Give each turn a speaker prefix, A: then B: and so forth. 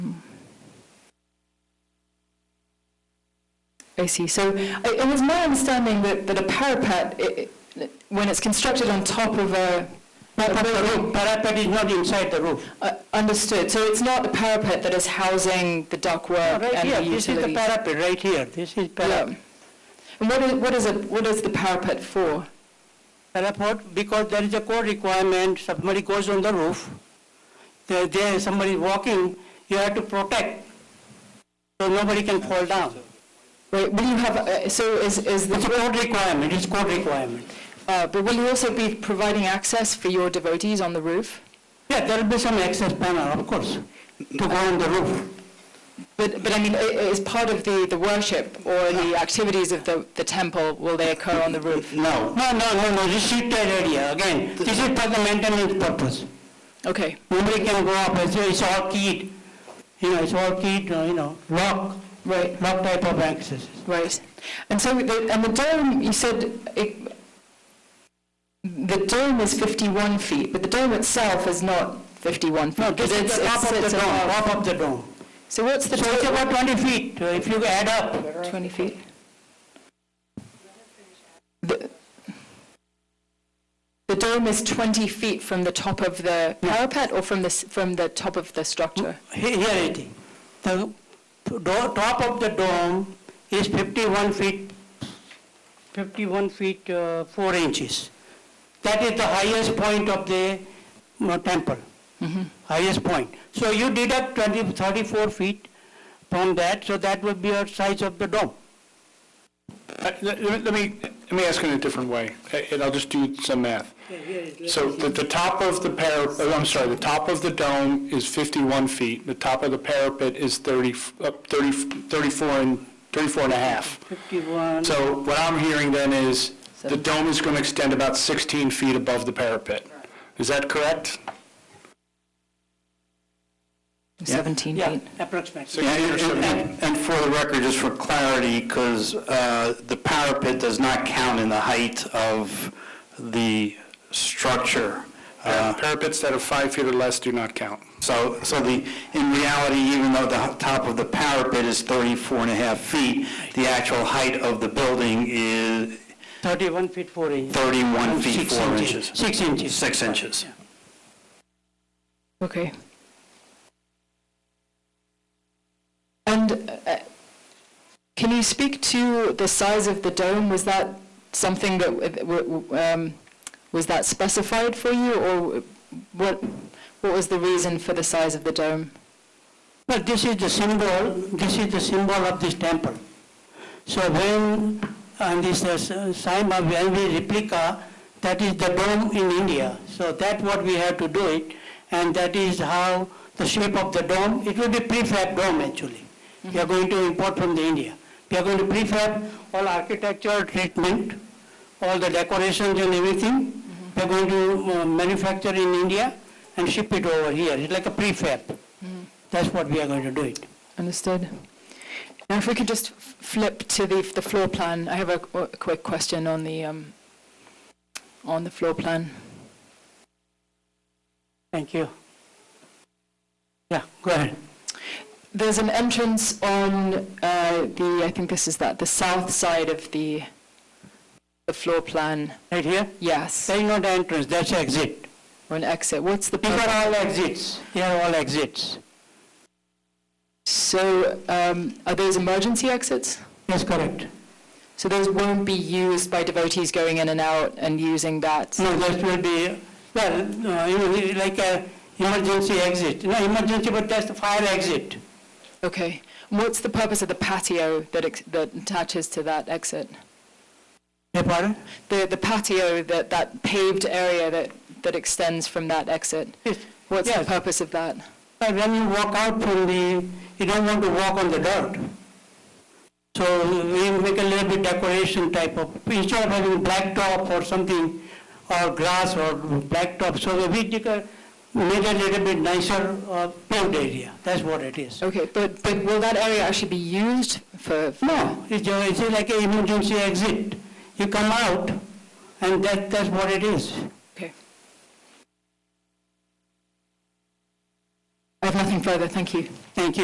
A: I see. So i- it was my understanding that, that a parapet, i i when it's constructed on top of a,
B: But the roof, parapet is not inside the roof.
A: uh, understood, so it's not the parapet that is housing the ductwork
B: Right
A: and
B: here,
A: the
B: this is the
A: utilities?
B: parapet, right here, this is
A: Yeah.
B: parapet.
A: And what is, what is it, what is the parapet for?
B: Parapet, because there is a code requirement, somebody goes on the roof, there, there, somebody walking, you have to protect, so nobody can fall down.
A: Right, will you have, uh, so is, is
B: It's a
A: the,
B: code requirement, it's code requirement.
A: uh, but will you also be providing access for your devotees on the roof?
B: Yeah, there will be some access panel, of course, to go on the roof.
A: But, but I mean, i- is part of the, the worship or the activities of the, the temple, will they occur on the roof?
C: No,
B: No, no, no, no, this is that area, again, this is for the maintenance purpose.
A: Okay,
B: Nobody can go up, it's, it's all keyed, you know, it's all keyed, uh, you know, lock,
A: right.
B: lock type of access.
A: Right. And so, the, and the dome, you said, it, the dome is 51 feet, but the dome itself is not 51 feet.
B: No, this
A: It's-
B: is the
A: it
B: top of the
A: sits
B: dome,
A: above.
B: top of the dome.
A: So what's the
B: So it's
A: total?
B: about twenty feet, uh, if you add up.
A: 20 feet? The, the dome is 20 feet from the top of the parapet or from the, s- from the top of the structure?
B: He- Here it is. The do- top of the dome is 51 feet, 51 feet, uh, 4 inches. That is the highest point of the uh, temple, highest point. So you deduct 20, 34 feet from that, so that would be your size of the dome.
C: Uh, Let let- let me, let me ask it in a different way, uh, and I'll just do some math. So the, the top of the parapet, I'm sorry, the top of the dome is 51 feet, the top of the parapet is 30, f- uh, 30 34 and, 34 and a half.
B: 51,
C: So what I'm hearing then is, the dome is going to extend about 16 feet above the parapet. Is that correct?
A: 17
B: yeah,
A: feet.
B: approximately.
D: Yeah, And and- and for the record, just for clarity, because the parapet does not count in the height of the structure. Uh,
C: Parapets that are five feet or less do not count.
D: So, so the, in reality, even though the h- top of the parapet is 34 and a half feet, the actual height of the building is
B: 31 feet, 4 inches.
D: 31 feet
B: Six
D: 4 inches.
B: 6 inches.
D: 6 inches.
A: Okay. And uh, can you speak to the size of the dome? Was that something that, w- w- um, was that specified for you, or what, what was the reason for the size of the dome?
B: Well, this is the symbol, this is the symbol of this temple. So when, and this is uh, sign of Envy replica, that is the dome in India. So that's what we have to do it, and that is how the shape of the dome, it will be prefab dome actually. We are going to import from the India. We are going to prefab all architectural treatment, all the decorations and everything. We are going to uh, manufacture in India and ship it over here. It's like a prefab. That's what we are going to do it.
A: Understood. Now, if we could just f- flip to the, the floor plan, I have a qu- a quick question on the, um, on the floor plan.
B: Thank you. Yeah, go ahead.
A: There's an entrance on uh, the, I think this is that, the south side of the, the floor plan,
B: Right here?
A: yes,
B: There is not entrance, that's exit.
A: or an exit. What's the
B: These are
A: purpose?
B: all exits. They are all exits.
A: So um, are those emergency exits?
B: That's correct.
A: So those won't be used by devotees going in and out and using that?
B: No, that will be, well, no, you know, like a emergency exit. No, emergency, but that's the fire exit.
A: Okay. And What's the purpose of the patio that ex- that attaches to that exit?
B: Yeah, pardon?
A: The the patio, that that paved area that that extends from that exit?
B: Yes.
A: What's the
B: Yes.
A: purpose of that?
B: But when you walk out from the, you don't want to walk on the dirt. So we make a little bit decoration type of, instead of having blacktop or something, or grass or blacktop, so we take a, made a little bit nicer uh, paved area, that's what it is.
A: Okay, but but will that area actually be used for?
B: No, it's, a- it's like an emergency exit. You come out, and that, that's what it is.
A: Okay. I have nothing further, thank you.
B: Thank you.